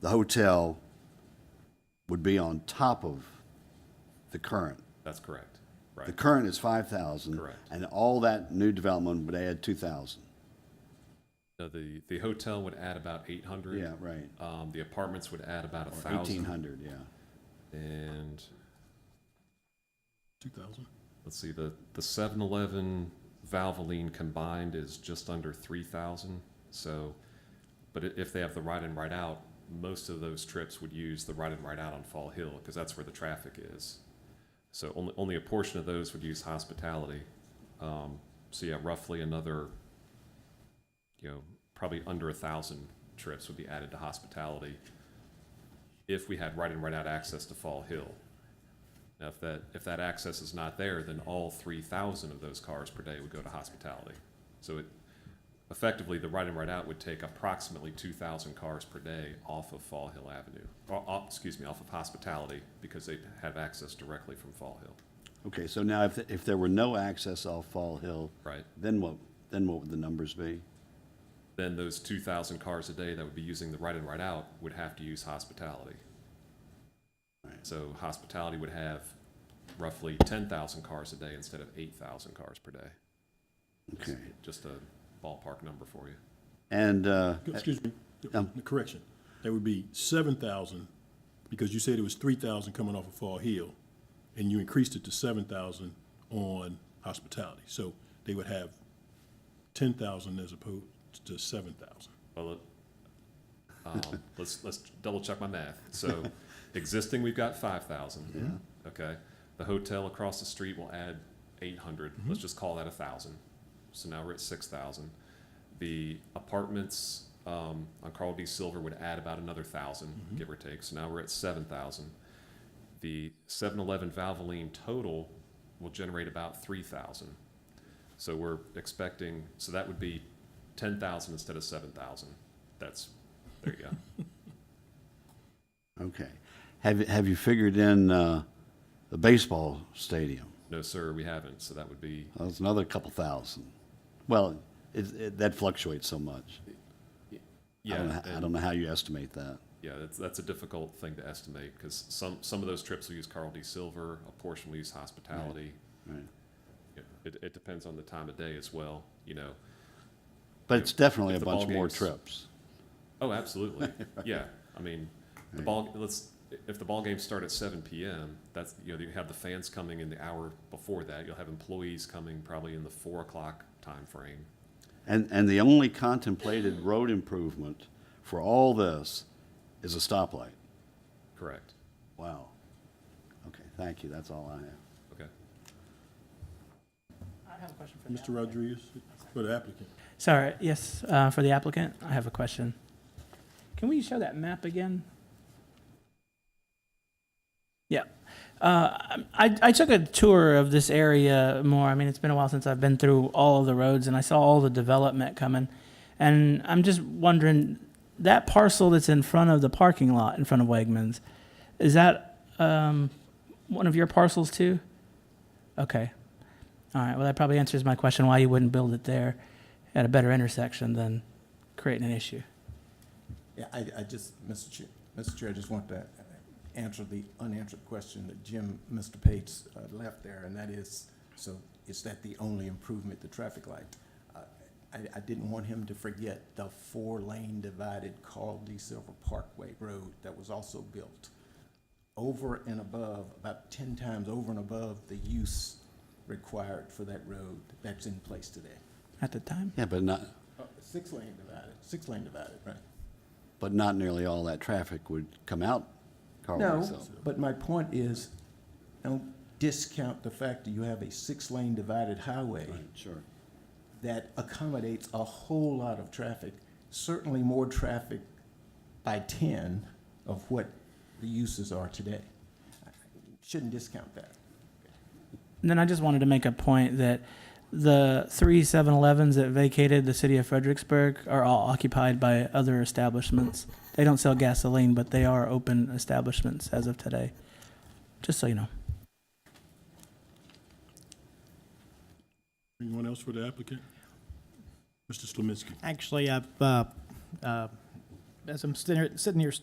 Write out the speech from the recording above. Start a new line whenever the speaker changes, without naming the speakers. the hotel would be on top of the current.
That's correct.
The
Right.
current is five thousand.
Correct.
And all that new development would add two thousand.
So the, the hotel would add about eight hundred.
Yeah, right.
Um, the apartments would add about a
Eighteen
thousand
hundred, yeah.
and
2,000.
let's see, the, the seven eleven Valvoline combined is just under three thousand. So, but i- if they have the ride in, ride out, most of those trips would use the ride in, ride out on Fall Hill because that's where the traffic is. So only, only a portion of those would use hospitality. Um, so yeah, roughly another, you know, probably under a thousand trips would be added to hospitality if we had right in, right out access to Fall Hill. Now, if that, if that access is not there, then all three thousand of those cars per day would go to hospitality. So it, effectively, the right in, right out would take approximately two thousand cars per day off of Fall Hill Avenue. Or, off- excuse me, off of hospitality, because they have access directly from Fall Hill,
Okay, so now if, if there were no access off Fall Hill,
right?
then what, then what would the numbers be?
Then those two thousand cars a day that would be using the right in, right out would have to use hospitality.
Right.
So hospitality would have roughly ten thousand cars a day instead of eight thousand cars per day.
Okay.
Just a ballpark number for you.
And, uh,
Excuse me,
Um,
the correction. That would be 7,000, because you said it was 3,000 coming off of Fall Hill, and you increased it to 7,000 on hospitality. So they would have 10,000 as opposed to 7,000.
Well, uh, um, let's, let's double check my math. So existing, we've got five thousand. Okay. The hotel across the street will add eight hundred. Let's just call that a thousand. So now we're at six thousand. The apartments, um, on Carl D. Silver would add about another thousand, give or take. So now we're at seven thousand. The seven eleven Valvoline total will generate about three thousand. So we're expecting, so that would be ten thousand instead of seven thousand. That's, there you go.
okay. Have, have you figured in, uh, the baseball stadium?
No, sir, we haven't, so that would be,
That's another couple thousand. Well, it, it, that fluctuates so much. I don't
yeah,
know- I
and-
don't know how you estimate that.
yeah, that's, that's a difficult thing to estimate, because some, some of those trips will use Carl D. Silver, a portion will use hospitality.
Right.
Yeah, It, it depends on the time of day as well, you know.
But it's definitely a
If the
bunch
ball
more
game's-
trips.
Oh, absolutely, yeah, I mean, the ball, let's, if the ball games start at seven PM, that's, you know, you have the fans coming in the hour before that, you'll have employees coming probably in the four o'clock timeframe.
And, and the only contemplated road improvement for all this is a stoplight.
Correct.
Wow. Okay, thank you. That's all I have.
Okay.
I have a question for the
Mr.
applicant.
Rodriguez, for the applicant.
Sorry, yes, uh, for the applicant, I have a question. Can we show that map again? Yeah. Uh, I, I took a tour of this area more. I mean, it's been a while since I've been through all of the roads and I saw all the development coming. And I'm just wondering, that parcel that's in front of the parking lot in front of Wegmans, is that um, one of your parcels too? Okay. All right, well, that probably answers my question why you wouldn't build it there at a better intersection than creating an issue.
Yeah, I, I just, Mr. Chair, Mr. Chair, I just want to answer the unanswered question that Jim, Mr. Page, uh, left there, and that is, so is that the only improvement, the traffic light? Uh, I, I didn't want him to forget the four-lane divided Carl D. Silver Parkway Road that was also built over and above, about ten times over and above the use required for that road that's in place today.
At the time,
Yeah, but not,
Uh, Six-lane divided, six-lane divided, right?
but not nearly all that traffic would come out Carl
No,
Lake South.
but my point is, don't discount the fact that you have a six-lane divided highway
Sure.
that accommodates a whole lot of traffic, certainly more traffic by ten of what the uses are today. Shouldn't discount that.
And then I just wanted to make a point that the three 7-Elevens that vacated the city of Fredericksburg are all occupied by other establishments. They don't sell gasoline, but they are open establishments as of today. Just so you know.
Anyone else for the applicant? Mr. Slominski.
Actually, I've, uh, uh, as I'm sitting here- sitting here